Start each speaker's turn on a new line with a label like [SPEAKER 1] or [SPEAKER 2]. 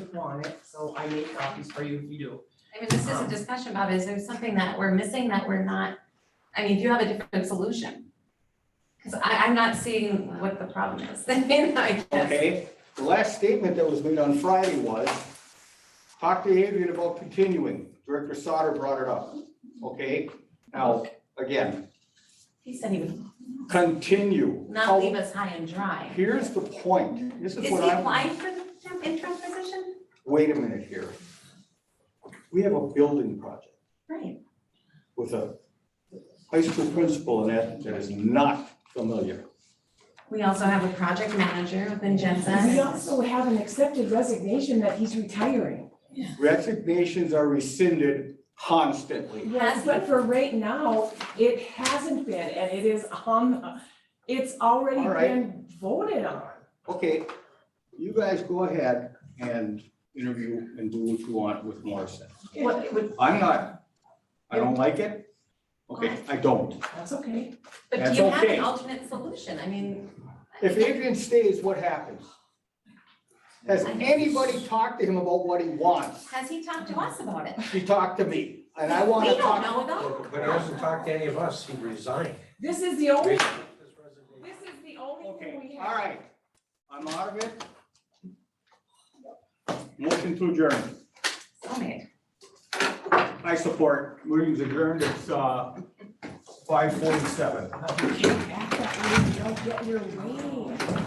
[SPEAKER 1] would want it, so I made copies for you if you do.
[SPEAKER 2] I mean, this is a
[SPEAKER 1] Um,
[SPEAKER 2] discussion, Bob, is there something that we're missing that we're not, I mean, do you have a different solution? Cause I, I'm not seeing what the problem is, I mean, I guess,
[SPEAKER 3] Okay, the last statement that was made on Friday was, talk to Adrian about continuing. Director Sauter brought it up, okay? Now, again,
[SPEAKER 2] he said he would
[SPEAKER 3] continue.
[SPEAKER 2] not leave us high and dry.
[SPEAKER 3] Here's the point. This
[SPEAKER 2] Is
[SPEAKER 3] is
[SPEAKER 2] he
[SPEAKER 3] what I'm,
[SPEAKER 2] applying for the interim position?
[SPEAKER 3] wait a minute here. We have a building project
[SPEAKER 2] Right,
[SPEAKER 3] with a high school principal in that that is not familiar.
[SPEAKER 2] we also have a project manager within
[SPEAKER 4] We
[SPEAKER 2] Jensen,
[SPEAKER 4] also have an accepted resignation that he's retiring.
[SPEAKER 3] Resignations are rescinded constantly.
[SPEAKER 4] Yes, but for right now, it hasn't been, and it is on, the- it's already
[SPEAKER 3] All right.
[SPEAKER 4] been voted on.
[SPEAKER 3] Okay, you guys go ahead and interview and do what you want with Morrison.
[SPEAKER 4] It- it would-
[SPEAKER 3] I'm not, I don't like it. Okay, I don't.
[SPEAKER 4] That's okay.
[SPEAKER 2] but
[SPEAKER 3] That's
[SPEAKER 2] do you have
[SPEAKER 3] okay.
[SPEAKER 2] an alternate solution, I mean? I
[SPEAKER 3] If
[SPEAKER 2] think-
[SPEAKER 3] Adrian stays, what happens? Has anybody talked to him about what he wants?
[SPEAKER 2] Has he talked to us about it?
[SPEAKER 3] He talked to me, and I want
[SPEAKER 2] We
[SPEAKER 3] to
[SPEAKER 2] don't
[SPEAKER 3] talk.
[SPEAKER 2] know though,
[SPEAKER 5] But he hasn't talked to any of us, he resigned.
[SPEAKER 4] This is the only,
[SPEAKER 5] His
[SPEAKER 4] this
[SPEAKER 5] resignation.
[SPEAKER 4] is the only
[SPEAKER 3] Okay,
[SPEAKER 4] thing we have.
[SPEAKER 3] all right. I'm out of it. Motion to adjourn.
[SPEAKER 2] so made,
[SPEAKER 3] I support. Meeting's adjourned. It's uh, five forty-seven.
[SPEAKER 4] Act that way, you don't get your way.